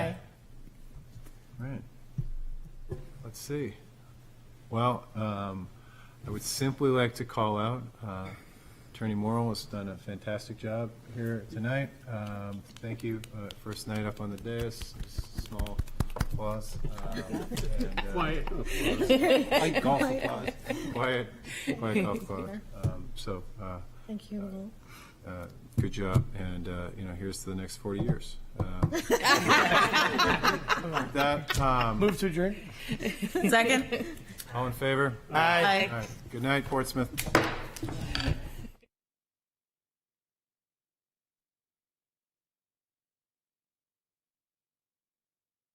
see. Well, um, I would simply like to call out, uh, Attorney Morrell has done a fantastic job here tonight. Um, Thank you, uh, first night up on the dais, small applause. um, and, uh, Quiet. Golf applause, quiet, quiet golf applause. Um, So, uh, Thank you, Lou. uh, good job, and, uh, you know, here's to the next 40 years. Um, with That, um, Move to adjourn. Second? all in favor? Aye. All right. Good night, Portsmouth.